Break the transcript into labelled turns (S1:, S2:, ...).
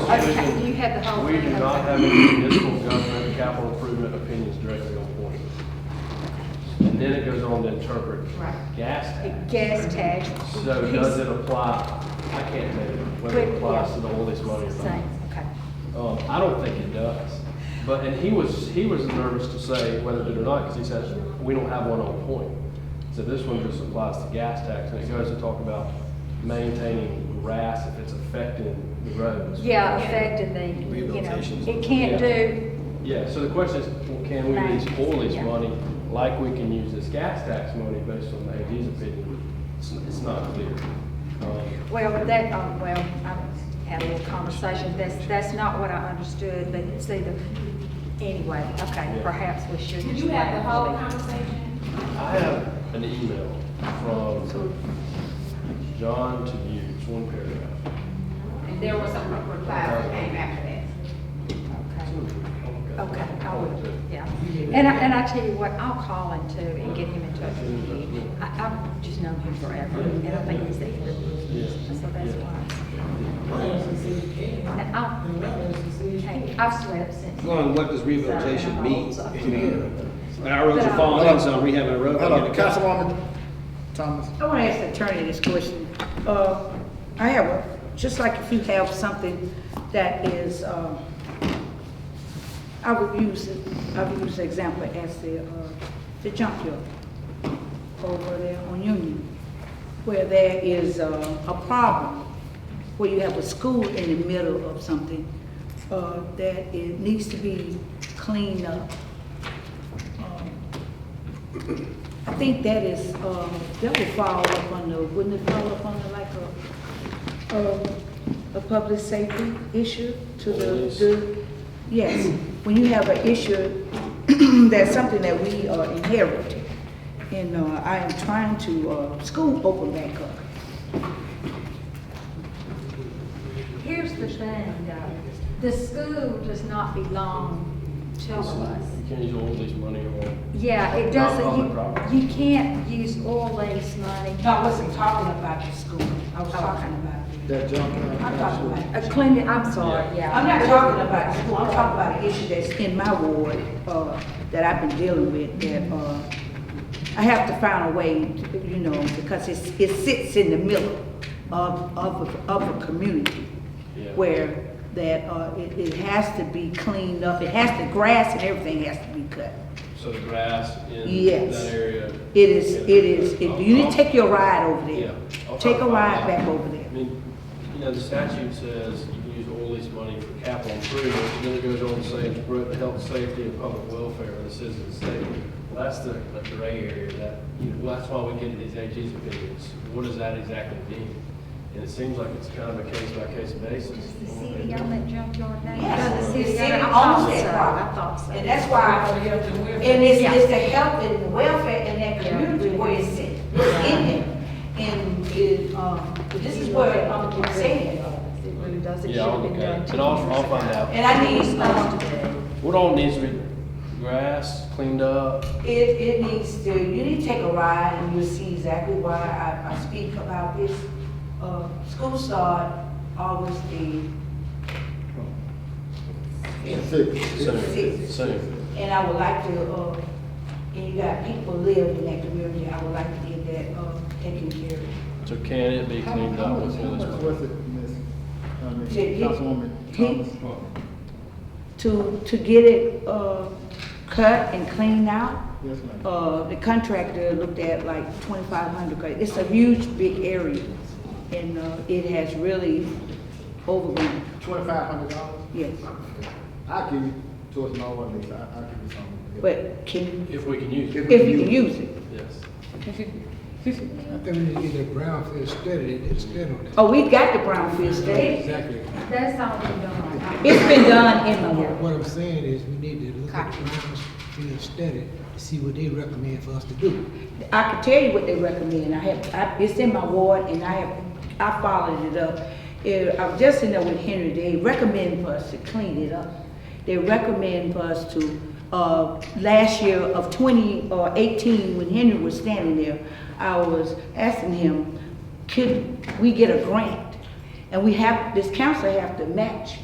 S1: Okay, do you have the whole
S2: We
S1: thing?
S2: do not
S1: Okay.
S2: have any municipal government capital improvement opinions directly on point. And then it goes on to interpret
S1: Right.
S2: gas
S1: The
S2: tax.
S1: Gas tax.
S2: So does it apply, I can't tell you whether it applies to the all this money or not.
S1: Same, okay.
S2: Um, I don't think it does. But, and he was, he was nervous to say whether it did or not, because he says, we don't have one on point. So this one just applies to gas tax, and it goes to talk about maintaining grass if it's affecting the roads.
S1: Yeah, affected the, you know,
S3: Rehabilitation's-
S1: it can't do,
S2: Yeah, so the question is, well, can we use all this
S1: Yeah.
S2: money like we can use this gas tax money based on the AG's opinion? It's, it's not clear. Um,
S1: well, that, um, well, I had a little conversation, that's, that's not what I understood, but see the, anyway, okay,
S2: Yeah.
S1: perhaps we should.
S4: Did you have the whole conversation?
S2: I have an email from John to you, it's one paragraph.
S4: And there was some replies that came after that.
S1: Okay. Okay, I will,
S2: Okay.
S1: yeah. And I, and I tell you what, I'll call him too and get him in touch with you. I, I've just known him forever, and I think he's a good, so that's why. Now, I'll, okay, I've slept since.
S3: Well, and what does rehabilitation mean? I mean, Our roads are
S5: um,
S3: falling
S6: But I-
S3: in, so I'm uh, rehabbing a road. I
S6: Hello,
S3: get a cut.
S6: Councilwoman Thomas.
S5: I want to ask the attorney this question. Uh, I have, a- just like if you have something that is, um, I would use, it- I would use the example as the, uh, the junkyard over there on Union, where there is uh, a problem, where you have a school in the middle of something, uh, that it needs to be cleaned up. Um, I think that is, um, that would fall up under, wouldn't it fall up under like a, um, a public safety issue to the,
S2: Yes.
S5: the, yes, when you have an issue, that's something that we uh, inherit. And, uh, I am trying to, uh, school open back up.
S1: Here's the thing, though, the school does not belong to us.
S2: You can't use all these money on,
S1: Yeah,
S2: Not
S1: it doesn't,
S2: public property.
S1: you, you can't use all lease money. Uh,
S5: No, I wasn't talking about the school, I was
S1: talking
S5: about,
S6: That junk.
S5: I'm talking about
S1: A clinic, I'm sorry, yeah.
S5: I'm not talking about school, I'm talking about an issue that's in my ward, uh, that I've been dealing with, that, uh, I have to find a way, to, you know, because it's, it sits in the middle of, of, a- of a community
S2: Yeah.
S5: where that, uh, it, it has to be cleaned up, it has to, grass and everything has to be cut.
S2: so the grass in
S5: Yes.
S2: that area.
S5: It is,
S2: Yeah.
S5: it is, if you need to take your ride over
S2: Yeah.
S5: there,
S2: I'll
S5: take a
S2: talk about
S5: ride
S2: that.
S5: back over there.
S2: I mean, you know, the statute says you can use all these money for capital improvements, and then it goes on to say, promote the health, safety, and public welfare of the citizens of the state. Well, that's the, the gray area that, you know, well, that's why we get these AG's opinions. What does that exactly mean? And it seems like it's kind of a case-by-case basis.
S1: Does the city own that junkyard now?
S5: Yes,
S1: Does
S5: the city
S1: own it? I
S5: owns
S1: thought
S5: that
S1: so. I
S5: property.
S1: thought so.
S5: And that's why, and it's, it's the health and welfare in that community where it's in, it's in there. And it, um, this is where I'm saying,
S1: It really does, it should
S2: Yeah, I'll
S1: have been
S2: look
S1: done.
S2: at it,
S1: two
S2: and I'll,
S1: years
S2: I'll find
S1: ago.
S2: out.
S5: and I need, um,
S2: What all needs to be, grass cleaned up,
S5: it, it needs to, you need to take a ride and you'll see exactly why I, I speak about this. Uh, school start August the
S2: soon, soon.
S5: And I would like to, uh, and you got people live in that community, I would like to get that, uh, taken care of.
S2: So can it be
S6: How
S2: cleaned
S6: how
S2: up
S6: much-
S2: with
S6: how
S2: all this
S6: much
S2: money?
S6: was it, Miss, I mean,
S5: He- he-
S6: Councilwoman
S5: he-
S6: Thomas?
S5: To, to get it, uh, cut and cleaned out,
S6: Yes, ma'am.
S5: uh, the contractor looked at like twenty-five hundred, it's a huge, big area. And, uh, it has really overwhelmed,
S6: Twenty-five hundred dollars?
S5: yes.
S6: I'll give you towards my one lease, I, I'll give you some.
S5: But can,
S2: If we can use it,
S5: if you can use it.
S2: yes.
S7: I think we need to get a brownfield study, they did a study on that.
S5: Oh, we got the brownfield study.
S7: Exactly.
S1: That's all been done.
S5: It's been done in the world.
S7: What I'm saying is, we need to look at the brownfield study to see what they recommend for us to do.
S5: I can tell you what they recommend, I have, I, it's in my ward and I have, I followed it up. It- I was just in there with Henry, they recommend for us to clean it up. They recommend for us to, uh, last year of twenty, or eighteen, when Henry was standing there, I was asking him, could we get a grant? And we have, this council have to match